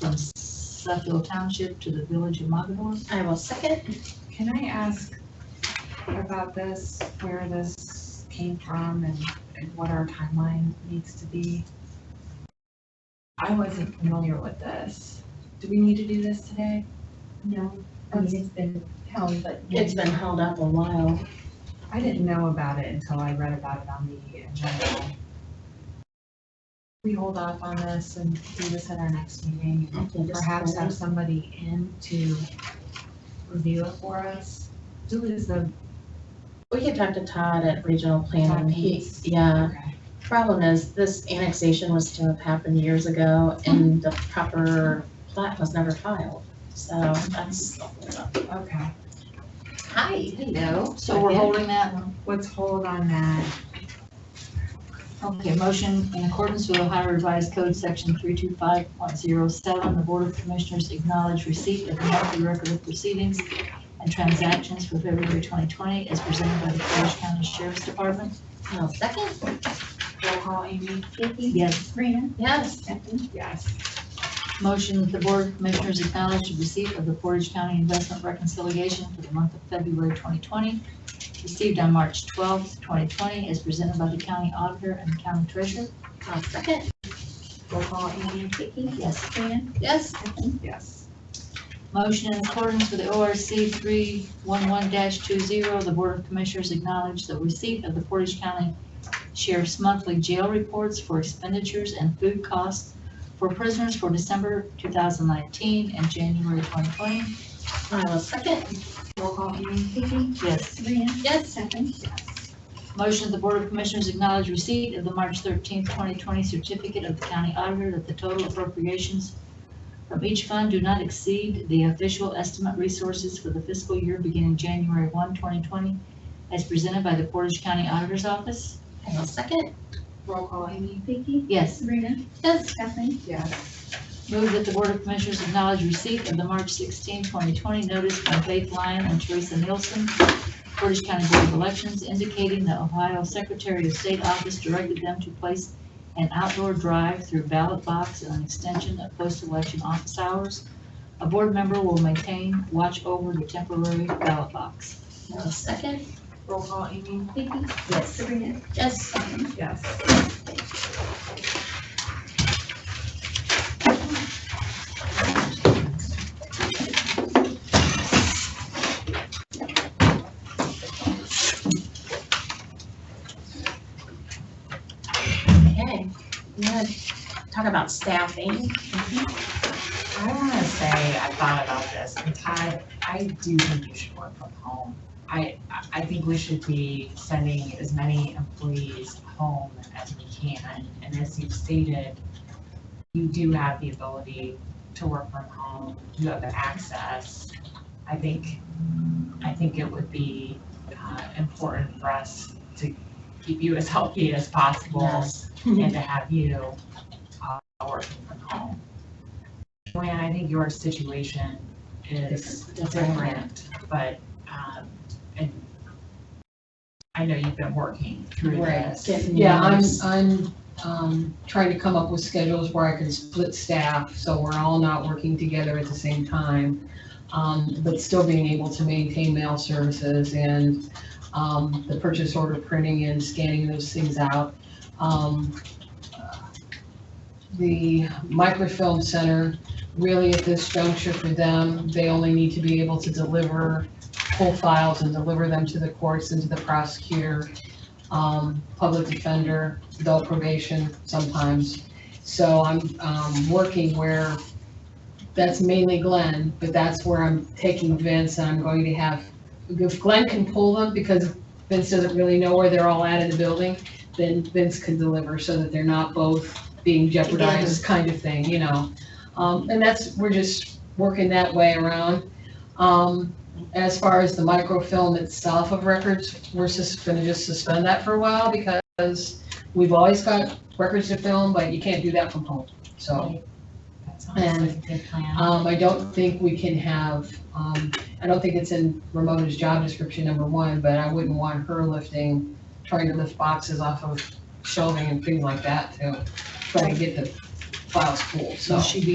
from Suffield Township to the Village of Magador. I will second. Can I ask about this, where this came from and, and what our timeline needs to be? I wasn't familiar with this. Do we need to do this today? No, I mean, it's been held, but. It's been held up a while. I didn't know about it until I read about it on the agenda. We hold off on this and do this at our next meeting, I think it's perhaps fine. have somebody in to review it for us. Who is the, We can talk to Todd at regional planning. He, Todd Hayes. yeah. okay, Problem is, this annexation was to have happened years ago and the proper plat was never filed. So that's. okay. Hi. Hello. So we're holding that one. Let's hold on that. Okay, motion in accordance with Ohio Revised Code, Section 325.07, the Board of Commissioners acknowledge receipt of the monthly record of proceedings and transactions for February 2020 as presented by the Portage County Sheriff's Department. I'll second. Roll call, Amy? Vicky, Yes. Sabrina, Yes. Stephanie, Yes. Motion that the Board of Commissioners acknowledge the receipt of the Portage County Investment Reconciliation for the month of February 2020, received on March 12th, 2020, as presented by the County Auditor and County Treasurer. I'll second. Roll call, Amy? Vicky, Yes. Sabrina, Yes. Stephanie, Yes. Motion in accordance with ORC 311-20, the Board of Commissioners acknowledge the receipt of the Portage County Sheriff's monthly jail reports for expenditures and food costs for prisoners for December 2019 and January 2020. I will second. Roll call, Amy? Vicky, Yes. Sabrina, Yes. Stephanie, Motion that the Board of Commissioners acknowledge receipt of the March 13, 2020 certificate of the county auditor that the total appropriations from each fund do not exceed the official estimate resources for the fiscal year beginning January 1, 2020, as presented by the Portage County Auditor's Office. I will second. Roll call, Amy? Vicky, Yes. Sabrina, Yes. Stephanie, Yes. Move that the Board of Commissioners acknowledge receipt of the March 16, 2020 notice from Faith Lyon and Teresa Nielsen, Portage County Board of Elections, indicating the Ohio Secretary of State Office directed them to place an outdoor drive through ballot box and an extension of post-election office hours. A board member will maintain watch over the temporary ballot box. I will second. Roll call, Amy? Vicky, Yes. Sabrina, Yes. Stephanie, Yes. Okay. You want to talk about staffing? I wanna say, I thought about this, and Todd, I do think you should work from home. I, I- I think we should be sending as many employees home as we can, and as you've stated, you do have the ability to work from home, you have the access. I think, I think it would be, uh, important for us to keep you as healthy as possible and to have you uh, working from home. Joanne, I think your situation is different, but, um, and I know you've been working through Right, this. getting Yeah, I'm, numbers. I'm, um, trying to come up with schedules where I can split staff, so we're all not working together at the same time. Um, but still being able to maintain mail services and, um, the purchase order printing and scanning those things out. Um, The microfilm center, really at this juncture for them, they only need to be able to deliver full files and deliver them to the courts and to the prosecutor um, public defender, adult probation sometimes. So I'm, um, working where, that's mainly Glenn, but that's where I'm taking Vince and I'm going to have, if Glenn can pull them because Vince doesn't really know where they're all at in the building, then Vince can deliver so that they're not both being jeopardized kind of thing, you know? Um, and that's, we're just working that way around. Um, as far as the microfilm itself of records, we're just gonna just suspend that for a while because we've always got records to film, but you can't do that from home, so. That sounds like a good uh, plan. Um, I don't think we can have, um, I don't think it's in Ramona's job description, number one, but I wouldn't want her lifting, trying to lift boxes off of shelving and things like that to try to get the files full, so. So she'd be